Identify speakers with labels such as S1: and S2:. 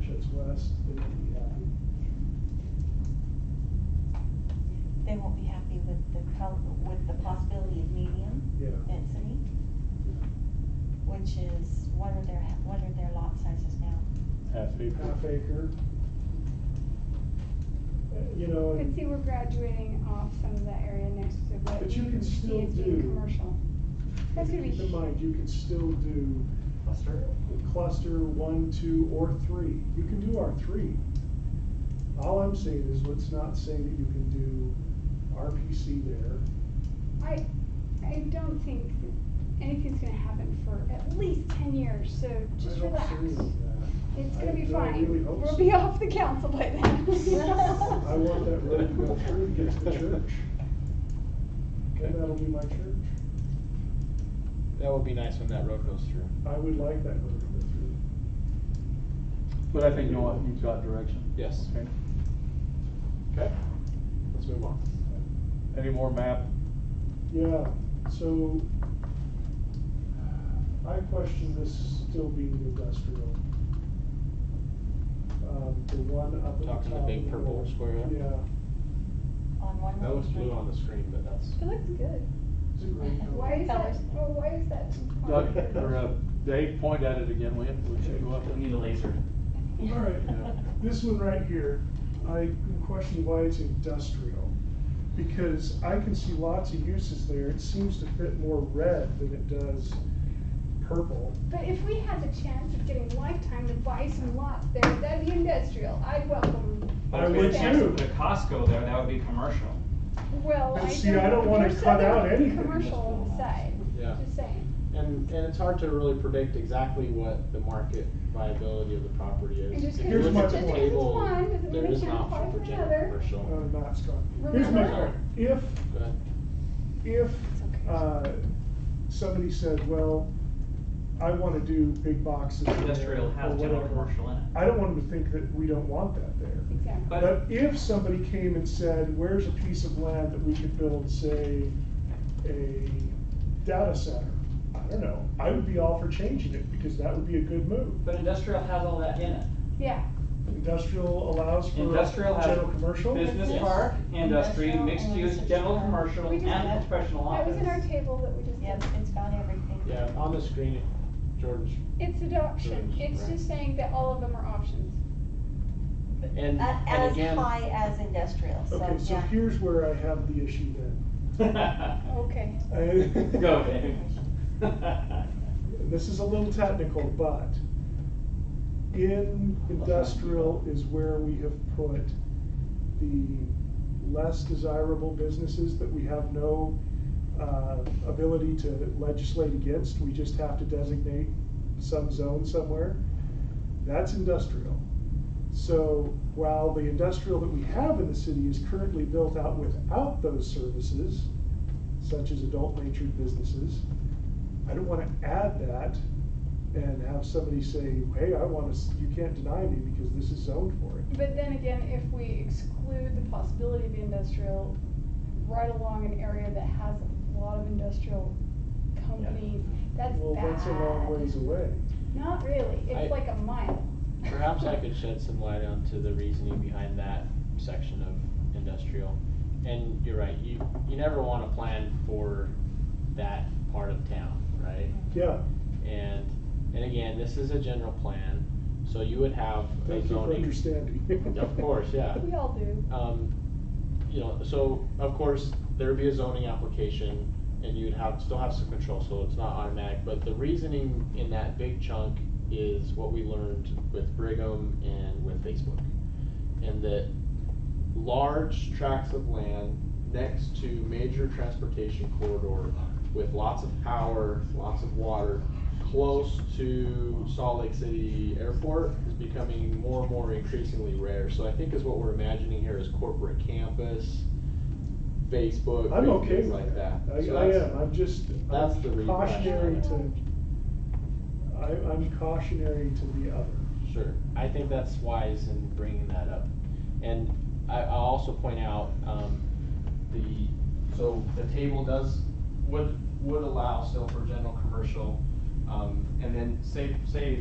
S1: that's, they won't be happy.
S2: They won't be happy with the color, with the possibility of medium
S1: Yeah.
S2: density, which is, what are their, what are their lot sizes now?
S3: Half
S1: Half acre.
S3: acre.
S1: Uh, You know,
S4: But see,
S1: and
S4: we're graduating off some of that area next to what
S1: But you
S4: we
S1: can
S4: see
S1: still
S4: as being
S1: do-
S4: commercial. That's gonna be
S1: keep in mind, you can still do
S5: Buster?
S1: cluster one, two, or three. You can do R three. All I'm saying is, let's not say that you can do RPC there.
S4: I, I don't think that anything's gonna happen for at least ten years, so just
S1: I don't
S4: relax.
S1: see any of that.
S4: It's
S1: I-
S4: gonna be
S1: no, I really
S4: fine.
S1: hope
S4: We'll
S1: so.
S4: be off the council by then.
S1: I want that road to go through and get to the church, and that'll be my church.
S6: That would be nice when that road goes through.
S1: I would like that road to go through.
S3: But I think you know, you've got direction.
S6: Yes.
S3: Okay.
S6: Okay. Let's move on.
S3: Any more map?
S1: Yeah, so I question this still being industrial. Um, the one up at the top.
S6: Talking the big
S1: of
S6: purple
S1: north-
S6: square there?
S1: Yeah,
S2: On one
S6: That
S2: little
S6: looks
S2: street.
S6: blue on the screen, but that's.
S4: It looks good.
S1: it's a great color.
S4: Why is that,
S2: Colors.
S4: well, why is that?
S3: Doug, or uh, Dave, point at it again, will you? We should go up
S5: We
S3: and-
S5: need a laser.
S1: All right, this one right here, I question why it's industrial. Because I can see lots of uses there, it seems to fit more red than it does purple.
S4: But if we had the chance of getting lifetime to buy some lots there, that'd be industrial. I'd welcome.
S1: I
S5: But if we
S1: would
S5: had a chance to
S1: too.
S5: put a Costco there, that would be commercial.
S4: Well,
S1: But
S4: I
S1: see, I don't wanna
S4: there's
S1: cut
S4: other
S1: out anything that's
S4: Commercial on the side,
S6: Yeah.
S4: just saying.
S6: And, and it's hard to really predict exactly what the market viability of the property is.
S4: And just
S6: If you
S1: here's
S6: look
S1: my
S6: at the
S1: point.
S4: Just
S6: table,
S4: 'cause it's one doesn't
S6: there
S4: mean it
S6: is an
S4: can't
S6: option
S4: apply
S6: for
S4: for
S6: general
S4: another.
S1: Uh,
S6: commercial.
S1: not strong. Here's my
S4: Remember-
S1: point, if
S6: Go ahead.
S1: if
S2: okay.
S1: uh, somebody said, well, I want to do big boxes in there,"
S5: Industrial
S1: or
S5: has general
S1: whatever,
S5: commercial in it.
S1: I don't want them to think that we don't want that there.
S4: Exactly.
S5: But-
S1: But if somebody came and said, where's a piece of land that we could build, say, a data center? I don't know, I would be all for changing it because that would be a good move.
S5: But industrial has all that in it.
S4: Yeah,
S1: Industrial allows for
S5: Industrial has
S1: general commercial.
S5: business
S2: Yes.
S5: park, industry,
S2: Industrial
S5: mixed
S2: and
S5: use,
S2: residential.
S5: general commercial,
S4: We just-
S5: and professional
S4: that
S5: office.
S4: was in our table that we just
S2: Yep,
S4: did.
S2: it's got everything.
S6: Yeah, on the screen, George,
S4: It's adoption.
S6: Right.
S4: It's just saying that all of them are options.
S6: and,
S2: A-
S6: and again.
S2: Uh, As high as industrial, so, yeah.
S1: Okay, so here's where I have the issue then.
S4: Okay.
S1: I-
S5: Go, Dave.
S1: and this is a little technical, but in industrial is where we have put the less desirable businesses that we have no uh, ability to legislate against, we just have to designate some zone somewhere. That's industrial. So while the industrial that we have in the city is currently built out without those services, such as adult natured businesses, I don't wanna add that and have somebody say, hey, I wanna, s- you can't deny me because this is zoned for it.
S4: But then again, if we exclude the possibility of industrial right along an area that has a lot of industrial companies, that's bad.
S1: Well, that's a long ways away.
S4: Not really.
S6: I-
S4: It's like a mile.
S6: Perhaps I could shed some light onto the reasoning behind that section of industrial. And you're right, you, you never wanna plan for that part of town, right?
S1: Yeah,
S6: And, and again, this is a general plan, so you would have a
S1: thank you for
S6: zoning.
S1: understanding.
S6: Of course, yeah.
S4: We all do.
S6: Um, you know, so of course, there'd be a zoning application and you'd have, still have some control, so it's not automatic, but the reasoning in that big chunk is what we learned with Brigham and with Facebook. And that large tracts of land next to major transportation corridor with lots of power, lots of water, close to Salt Lake City Airport is becoming more and more increasingly rare. So I think is what we're imagining here is corporate campus, Facebook,
S1: I'm
S6: big
S1: okay
S6: things
S1: with
S6: like that.
S1: that.
S6: So
S1: I, I
S6: that's-
S1: am, I'm just,
S6: that's the
S1: I'm
S6: reason.
S1: cautionary to, I, I'm cautionary to the other.
S6: Sure. I think that's wise in bringing that up. And I, I'll also point out, um, the, so the table does, would, would allow still for general commercial. Um, and then say, say